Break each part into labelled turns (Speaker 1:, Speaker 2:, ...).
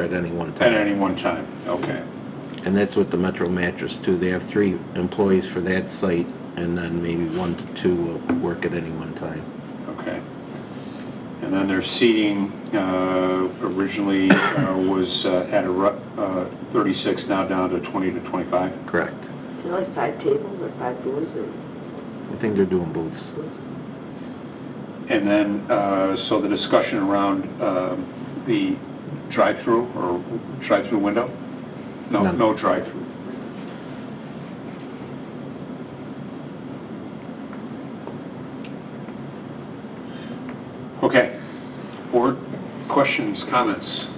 Speaker 1: at any one
Speaker 2: At
Speaker 1: time.
Speaker 2: any one time, okay.
Speaker 1: And that's with the Metro Mattress too. They have three employees for that site and then maybe one to two will work at any one time.
Speaker 2: Okay. And then their seating uh, originally uh, was uh, at a ru- uh, 36, now down to 20 to 25?
Speaker 1: Correct.
Speaker 3: Is it like five tables or five booths or
Speaker 1: I think they're doing booths.
Speaker 3: booths?
Speaker 2: And then, uh, so the discussion around um, the drive-through or drive-through window? No,
Speaker 1: No.
Speaker 2: no drive-through. Okay. Board, questions, comments?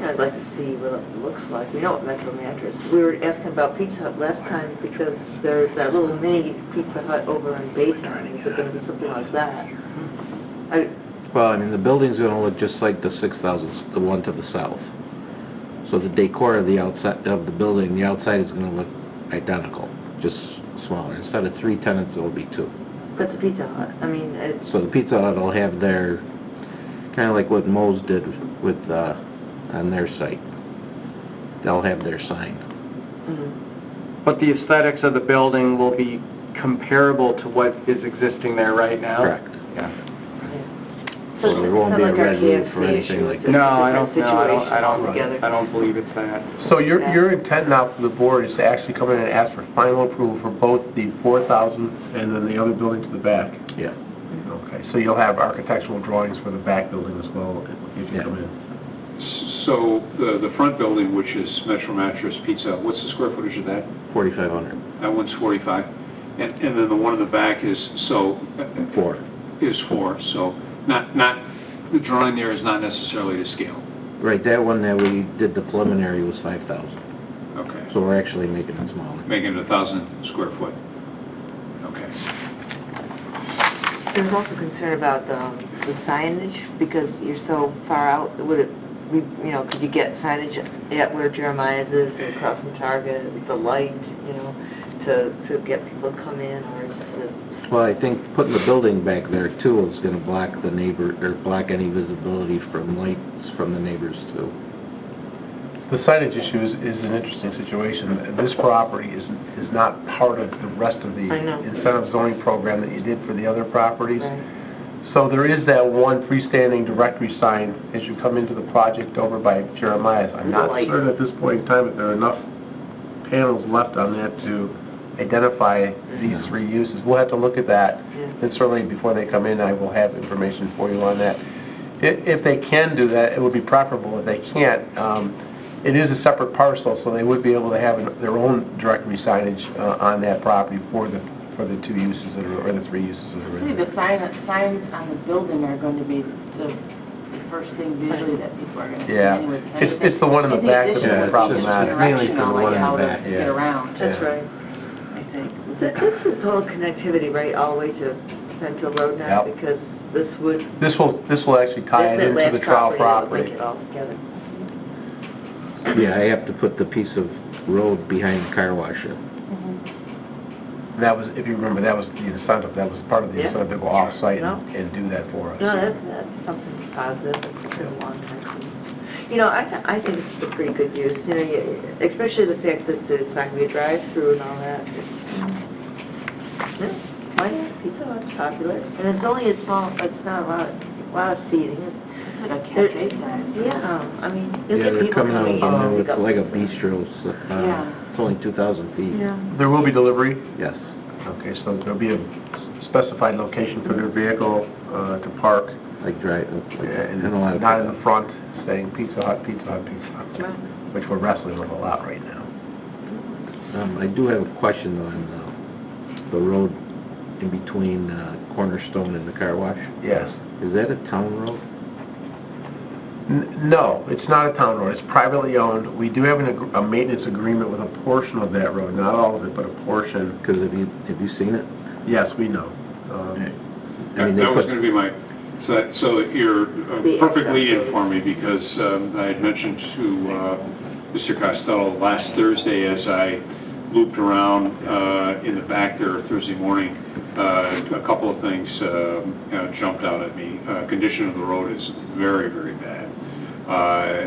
Speaker 3: Yeah, I'd like to see what it looks like. We know what Metro Mattress. We were asking about Pizza Hut last time because there's that little mini Pizza Hut over in Baytown. Is it gonna be something like that? I,
Speaker 1: Well, I mean, the building's gonna look just like the six thousand, the one to the south. So the decor of the outside, of the building, the outside is gonna look identical, just smaller. Instead of three tenants, it'll be two.
Speaker 3: that's a Pizza Hut. I mean, it's,
Speaker 1: So the Pizza Hut will have their, kinda like what Mo's did with, uh, on their site. They'll have their sign.
Speaker 3: mm,
Speaker 4: But the aesthetics of the building will be comparable to what is existing there right now?
Speaker 1: Correct.
Speaker 4: Yeah.
Speaker 3: so it's
Speaker 1: Well, there
Speaker 3: it's
Speaker 1: won't
Speaker 3: not
Speaker 1: be a
Speaker 3: like our
Speaker 1: red roof or
Speaker 3: KFC
Speaker 1: anything
Speaker 3: issue.
Speaker 1: like
Speaker 3: It's a
Speaker 1: that.
Speaker 4: No,
Speaker 3: different
Speaker 4: I don't, no, I don't,
Speaker 3: situation
Speaker 4: I
Speaker 3: altogether.
Speaker 4: don't, I don't believe it's that.
Speaker 5: So your, your intent now from the board is to actually come in and ask for final approval for both the 4,000 and then the other building to the back?
Speaker 1: Yeah.
Speaker 5: Okay, so you'll have architectural drawings for the back building as well if you come in?
Speaker 2: S- So the, the front building, which is Metro Mattress Pizza, Hut, what's the square footage of that?
Speaker 1: Forty-five hundred.
Speaker 2: That one's 45. And, and then the one in the back is, so, uh,
Speaker 1: Four.
Speaker 2: is four, so not, not, the drawing there is not necessarily to scale.
Speaker 1: Right, that one that we did the preliminary was five thousand.
Speaker 2: Okay.
Speaker 1: So we're actually making it smaller.
Speaker 2: Making it a thousand square foot. Okay.
Speaker 3: There's also concern about the the signage, because you're so far out, would it, we- you know, could you get signage at where Jeremiah's is, and across from Target, the light, you know, to, to get people to come in, or is it-
Speaker 1: Well, I think putting the building back there too is gonna block the neighbor, or block any visibility from lights from the neighbors too.
Speaker 5: The signage issue is, is an interesting situation. This property is, is not part of the rest of the
Speaker 3: I know.
Speaker 5: incentive zoning program that you did for the other properties.
Speaker 3: Right.
Speaker 5: So there is that one freestanding directory sign as you come into the project over by Jeremiah's. I'm not
Speaker 3: Right.
Speaker 5: certain at this point in time if there are enough panels left on that to identify these three uses. We'll have to look at that,
Speaker 3: Yeah.
Speaker 5: and certainly before they come in, I will have information for you on that. I- If they can do that, it would be preferable. If they can't, um, it is a separate parcel, so they would be able to have an- their own directory signage uh, on that property for the, for the two uses that are, or the three uses that are in
Speaker 6: I think
Speaker 5: there.
Speaker 6: the sign, signs on the building are going to be the, the first thing visually that people are going to see
Speaker 5: Yeah.
Speaker 6: anyways. And
Speaker 5: It's-
Speaker 6: anything-
Speaker 5: it's the one in the
Speaker 6: anything
Speaker 5: back that's
Speaker 6: additional
Speaker 1: more
Speaker 6: is just
Speaker 5: problematic.
Speaker 1: It's mainly for the
Speaker 6: directional, like
Speaker 1: one in the
Speaker 6: how to
Speaker 1: back,
Speaker 6: get
Speaker 5: yeah.
Speaker 6: around,
Speaker 3: That's right.
Speaker 6: I think.
Speaker 3: Th- This is total connectivity, right, all the way to Penfield Road now?
Speaker 5: Yep.
Speaker 3: Because this would,
Speaker 5: This will, this will actually tie
Speaker 3: that's
Speaker 5: it
Speaker 3: that
Speaker 5: into the
Speaker 3: last
Speaker 5: trial
Speaker 3: property that would link
Speaker 5: property.
Speaker 3: it all together.
Speaker 1: Yeah, I have to put the piece of road behind the car wash in.
Speaker 5: And That was, if you remember, that was the incentive, that was part of the
Speaker 3: Yeah.
Speaker 5: incentive to go off-site
Speaker 3: No.
Speaker 5: and and do that for us.
Speaker 3: No, that, that's something positive, that's a good long time. You know, I, th- I think this is a pretty good use, you know, you- especially the fact that it's not gonna be a drive-through and all that. Yeah, Why, not? Pizza Hut's popular, and it's only a small, it's not a lot, a lot of seating.
Speaker 6: It's like a cafe size.
Speaker 3: Yeah, I mean, you'll
Speaker 1: Yeah,
Speaker 3: get
Speaker 1: they're
Speaker 3: people
Speaker 1: coming out, you
Speaker 3: coming in. to
Speaker 1: know,
Speaker 3: pick
Speaker 1: it's
Speaker 3: up
Speaker 1: like a
Speaker 3: pizza.
Speaker 1: bistro, so,
Speaker 6: Yeah.
Speaker 1: uh, it's only two thousand feet,
Speaker 3: Yeah.
Speaker 5: There will be delivery?
Speaker 1: yes.
Speaker 5: Okay, so there'll be a s- specified location for their vehicle uh, to park,
Speaker 1: Like drive,
Speaker 5: uh,
Speaker 1: like,
Speaker 5: and
Speaker 1: and a lot of.
Speaker 5: not in the front, saying Pizza Hut, Pizza Hut, Pizza Hut,
Speaker 3: Right.
Speaker 5: which we're wrestling with a lot right now.
Speaker 1: Um, I do have a question though on uh, the, the road in between, uh, Cornerstone and the car wash.
Speaker 5: Yes.
Speaker 1: Is that a town road?
Speaker 5: N- No, it's not a town road, it's privately owned. We do have an ag- a maintenance agreement with a portion of that road, not all of it, but a portion.
Speaker 1: Cause have you, have you seen it?
Speaker 5: Yes, we know. Um,
Speaker 1: I mean,
Speaker 2: That
Speaker 1: they
Speaker 2: that was
Speaker 1: put,
Speaker 2: going to be my, so that- so you're uh,
Speaker 3: The
Speaker 2: perfectly
Speaker 3: access.
Speaker 2: in for me because um, I had mentioned to uh, Mr. Costello last Thursday as I looped around uh, in the back there Thursday morning, uh, a couple of things um, uh, jumped out at me. Uh, Condition of the road is very, very bad. Uh,